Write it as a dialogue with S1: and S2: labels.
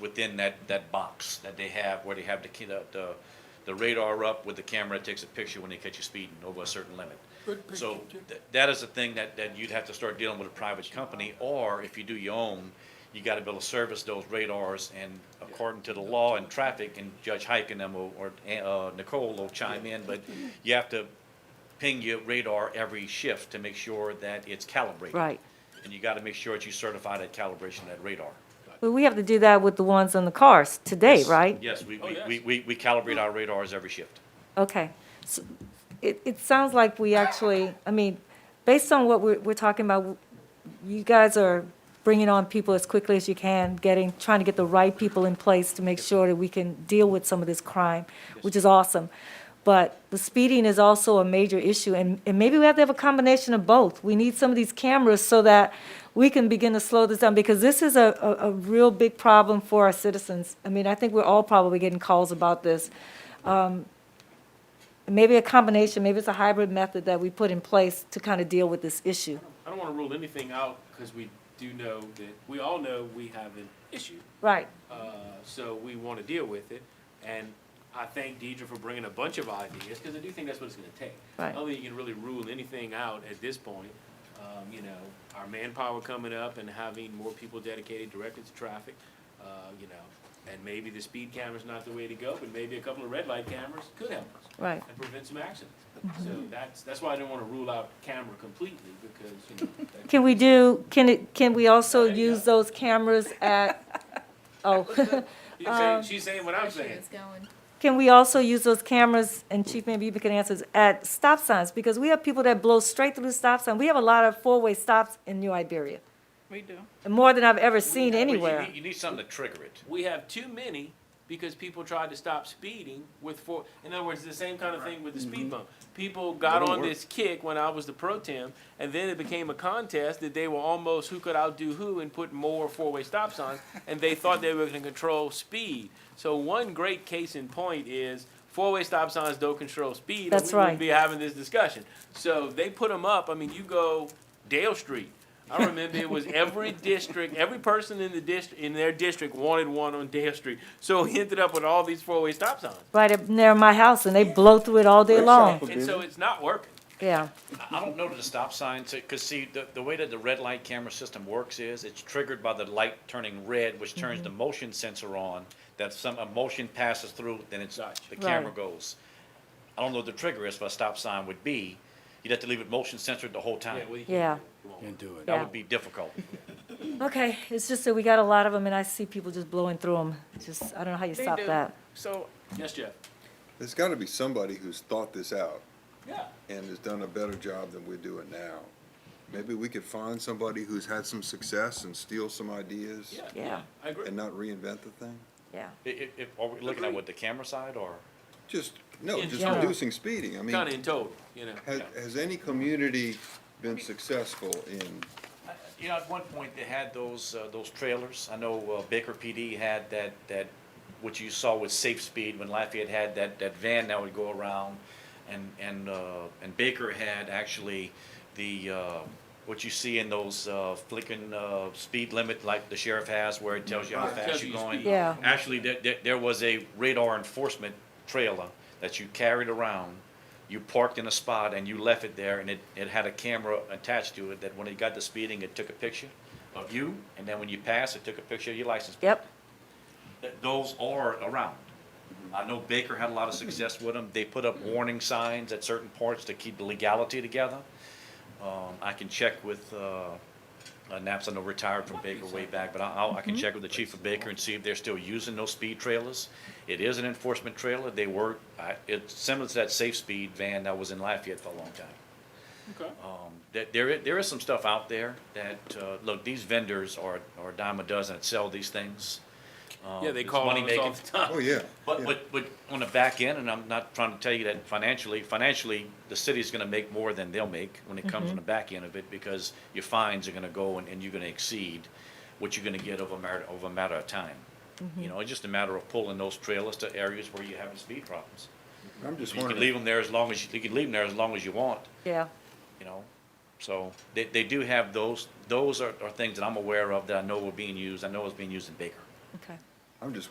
S1: within that, that box that they have, where they have the, ca- the- the, the radar up with the camera, takes a picture when they catch you speeding over a certain limit.
S2: Good picture,
S1: So
S2: Jim.
S1: th- that is the thing that, that you'd have to start dealing with a private company, or if you do your own, you gotta be able to service those radars and according to the law and traffic, and Judge Hike and them will- or, uh, Nicole will chime in, but you have to ping your radar every shift to make sure that it's calibrated.
S3: Right.
S1: And you gotta make sure that you certify that calibration of that radar.
S3: Well, we have to do that with the ones on the cars today, right?
S1: Yes, we,
S2: Oh,
S1: we-
S2: yes.
S1: we, we, we calibrate our radars every shift.
S3: Okay. So It, it sounds like we actually, I mean, based on what we're, we're talking about, you guys are bringing on people as quickly as you can, getting, trying to get the right people in place to make sure that we can deal with some of this crime, which is awesome. But the speeding is also a major issue, and, and maybe we have to have a combination of both. We need some of these cameras so that we can begin to slow this down, because this is a, a, a real big problem for our citizens. I mean, I think we're all probably getting calls about this maybe a combination, maybe it's a hybrid method that we put in place to kind of deal with this issue.
S4: I don't want to rule anything out because we do know that, we all know we have an issue,
S3: Right,
S4: uh, so we want to deal with it. And I thank Deidre for bringing a bunch of ideas because I do think that's what it's going to take.
S3: Right.
S4: I don't think you can really rule anything out at this point. Um, you know, our manpower coming up and having more people dedicated directly to traffic, uh, you know, and maybe the speed camera's not the way to go, but maybe a couple of red light cameras could help us
S3: right.
S4: and prevent some accidents. So that's, that's why I didn't want to rule out camera completely because, you know, that
S3: Can we do, can it, can we also
S4: There you
S3: use
S4: go.
S3: those cameras at, oh,
S4: She's saying, she's saying what I'm saying.
S3: can we also use those cameras, and Chief, maybe you can answer, this, at stop signs? Because we have people that blow straight through the stop sign. We have a lot of four-way stops in New Iberia,
S5: We do.
S3: and more than I've ever seen
S1: But you
S3: anywhere.
S1: need- You need something to trigger it.
S4: We have too many because people tried to stop speeding with four. In other words, the same kind of thing with the speed bump. People got on this kick when I was the pro tem, and then it became a contest that they were almost who could outdo who and put more four-way stop signs, and they thought they were going to control speed. So one great case in point is four-way stop signs don't control speed. or
S3: That's
S4: we wouldn't
S3: right.
S4: Be having this discussion. So they put them up. I mean, you go Dale Street. I remember it was every district, every person in the district, in their district wanted one on Dale Street. So we ended up with all these four-way stop signs.
S3: Right up near my house, and they blow through it all day long,
S4: And so it's not working.
S3: yeah.
S1: I- I don't know that the stop sign, because see, the, the way that the red light camera system works is, it's triggered by the light turning red, which turns
S3: Mm-hmm.
S1: the motion sensor on, that some emotion passes through, then it's, the camera
S3: Right.
S1: goes. I don't know what the trigger is for a stop sign would be, you'd have to leave it motion censored the whole time.
S4: we-
S3: Yeah.
S4: it won't work.
S2: And do it.
S1: That
S3: Yeah.
S1: would be difficult.
S3: Okay, it's just that we got a lot of them, and I see people just blowing through them. Just, I don't know how you
S5: They
S3: stop
S5: do.
S3: that.
S5: So
S4: Yes, Jeff?
S6: There's gotta be somebody who's thought this out
S4: Yeah.
S6: and has done a better job than we're doing now. Maybe we could find somebody who's had some success and steal some ideas
S4: Yeah.
S3: Yeah.
S4: I agree.
S6: and not reinvent the thing?
S3: Yeah.
S1: I- I- if- are we looking at
S4: Agreed.
S1: what, the camera side, or?
S6: Just, no,
S4: In
S6: just
S3: general.
S6: reducing speeding. I mean,
S4: Kinda in total, you know.
S6: has, has any community been successful in,
S1: You know, at one point, they had those, uh, those trailers, I know uh, Baker PD had that, that, what you saw with Safe Speed, when Lafayette had that, that van that would go around, and, and, uh, and Baker had actually the, uh, what you see in those, uh, flicking, uh, speed limit, like the sheriff has, where it tells you how
S4: Right. Tells
S1: fast
S4: you
S1: you're
S4: your
S1: going.
S4: speed.
S3: Yeah.
S1: Actually, there, there, there was a radar enforcement trailer that you carried around. You parked in a spot and you left it there and it, it had a camera attached to it that when it got to speeding, it took a picture of you. And then when you passed, it took a picture of your license. plate.
S3: Yep.
S1: Th- Those are around. I know Baker had a lot of success with them. They put up warning signs at certain parts to keep the legality together. Um, I can check with, uh, uh, Naps, I know retired from Baker way back, but I- I'll, I can
S4: Mm-hmm.
S1: check with the chief of Baker and see if they're still using those speed trailers. It is an enforcement trailer, they were, I, it's similar to that safe speed van that was in Lafayette for a long time.
S4: Okay.
S1: Um, that there, i- there is some stuff out there that, uh, look, these vendors are, are a dime a dozen that sell these things. Um,
S4: Yeah, they
S1: it's
S4: call on
S1: money
S4: us all
S1: making.
S4: the time.
S6: oh, yeah.
S1: But,
S6: yeah.
S1: but, but on the back end, and I'm not trying to tell you that financially, financially, the city's gonna make more than they'll make when it comes on the back end of it, because your fines are gonna go and, and you're gonna exceed what you're gonna get over a matter, over a matter of time. You know, it's just a matter of pulling those trailers to areas where you're having speed problems.
S6: I'm just
S1: You can leave
S6: wondering,
S1: them there as long as, you you can leave them there as long as you want,
S3: Yeah.
S1: you know? So, they, they do have those, those are, are things that I'm aware of that I know were being used, I know it's being used in Baker.
S3: Okay.
S6: I'm just